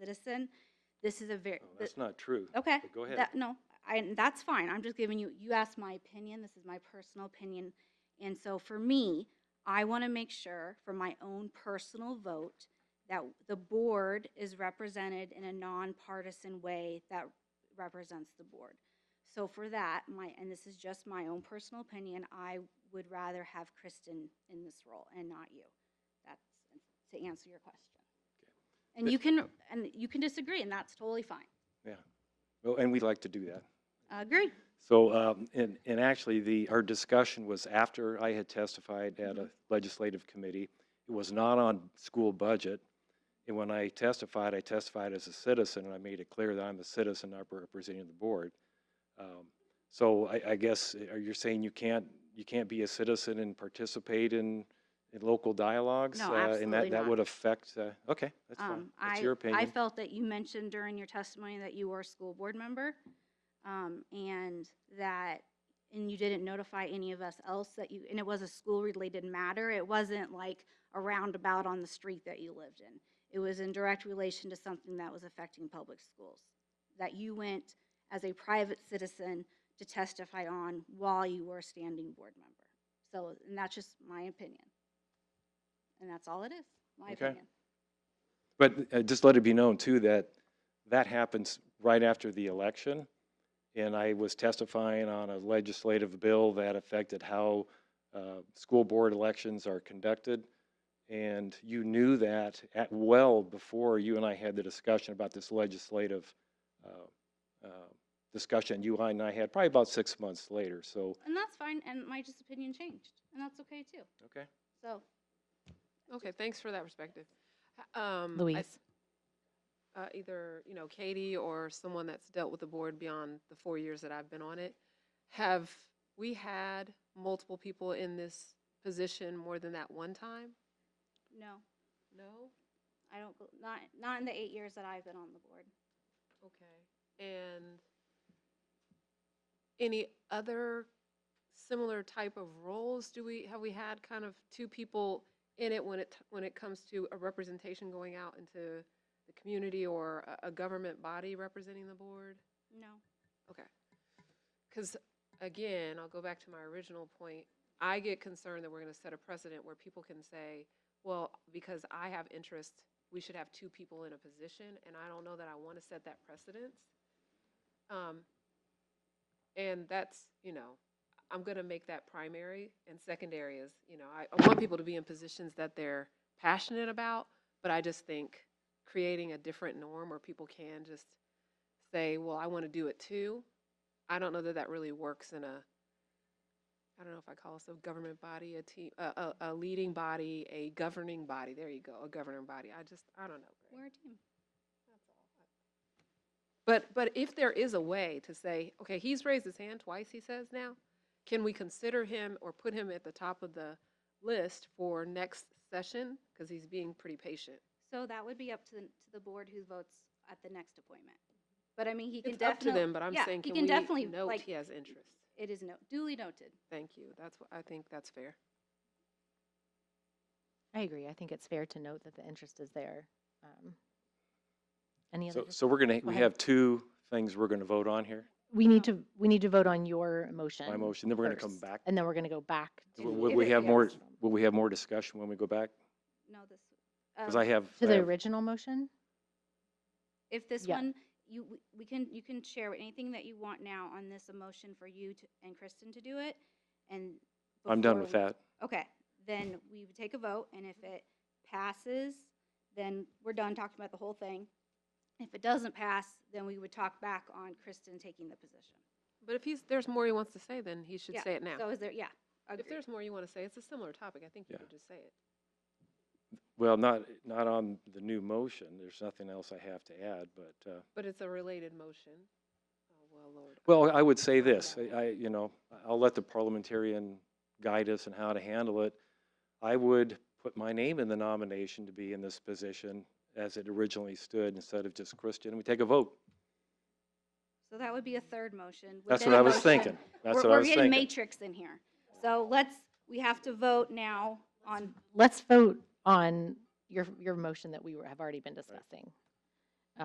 citizen, this is a very, No, Oh, That's not true. okay. But go ahead. that- No, I, and that's fine. I'm just giving you, you asked my opinion. This is my personal opinion. And so for me, I want to make sure for my own personal vote that the board is represented in a nonpartisan way that represents the board. So for that, my, and this is just my own personal opinion, I would rather have Kristen in this role and not you. That's to answer your question. And you can, and you can disagree, and that's totally fine. Well, And we like to do that. Agree. So, um, and, and actually, the, our discussion was after I had testified at Mm-hmm. a legislative committee. It was not on school budget. And when I testified, I testified as a citizen, and I made it clear that I'm a citizen, not representing the board. Um, So I, I guess, uh, are you saying you can't, you can't be a citizen and participate in, in local dialogues? No, Uh, And absolutely that, that not. would affect, uh, okay, that's fine. Um, That's I- I your opinion. felt that you mentioned during your testimony that you were a school board member, um, and that, and you didn't notify any of us else that you, and it was a school-related matter. It wasn't like a roundabout on the street that you lived in. It was in direct relation to something that was affecting public schools, that you went as a private citizen to testify on while you were a standing board member. So, and that's just my opinion. And that's all it is, my Okay. opinion. But uh, just let it be known too that that happens right after the election. And I was testifying on a legislative bill that affected how uh, school board elections are conducted. And you knew that at well before you and I had the discussion about this legislative uh, uh, discussion you and I had, probably about six months later. So, And that's fine, and my just opinion changed, and that's okay too. okay. So, Okay, thanks for that perspective. H- um, I- Louise. uh, Either, you know, Katie or someone that's dealt with the board beyond the four years that I've been on it. Have we had multiple people in this position more than that one time? no, No? I don't, go- not, not in the eight years that I've been on the board. Okay. And any other similar type of roles do we, have we had kind of two people in it when it, when it comes to a representation going out into the community or a, a government body representing the board? No. Okay. Because again, I'll go back to my original point. I get concerned that we're going to set a precedent where people can say, well, because I have interest, we should have two people in a position, and I don't know that I want to set that precedence. Um, And that's, you know, I'm going to make that primary, and secondary is, you know, I, I want people to be in positions that they're passionate about, but I just think creating a different norm where people can just say, well, I want to do it too, I don't know that that really works in a, I don't know if I call us a government body, a team, a, a, a leading body, a governing body, there you go, a governing body, I just, I don't know. Greg. We're a team. But, but if there is a way to say, okay, he's raised his hand twice, he says now, can we consider him or put him at the top of the list for next session? Because he's being pretty patient. So that would be up to, the- to the board who votes at the next appointment. But I mean, he can It's up to definitely. them, but I'm yeah, saying, he can we definitely, note like, he has interest? It is no, duly noted. Thank you, that's, what I think that's fair. I agree. I think it's fair to note that the interest is there. Um, Any other? So, dis- so we're gonna, Go we ahead. have two things we're gonna vote on here, We need to, we need to vote on your motion. my motion, then we're gonna come first, back. And then we're going to go back to. Will will If we it- have yeah. more, will we have more discussion when we go back? No, this. Because um, I have. To I the have- original motion? If this Yeah. one, you, we- we can, you can share anything that you want now on this emotion for you to- and Kristen to do it, and. I'm done before with we- that. Okay, then we would take a vote, and if it passes, then we're done talking about the whole thing. If it doesn't pass, then we would talk back on Kristen taking the position. But if he's, there's more he wants to say, then he should Yeah, say it now. So is there, yeah. If agreed. there's more you want to say, it's a similar topic, I think you Yeah. could just say it. Well, not, not on the new motion. There's nothing else I have to add, but, uh, But it's a related motion. Oh, well, Lord. well, I would say this, I- I, you know, I'll let the parliamentarian guide us in how to handle it. I would put my name in the nomination to be in this position as it originally stood instead of just Christian. We take a vote. So that would be a third motion. That's within what a I was motion. thinking. That's We're- what I was We're getting thinking. matrix in here. So let's, we have to vote now on, Let's vote on your, your motion that we were- have already been discussing.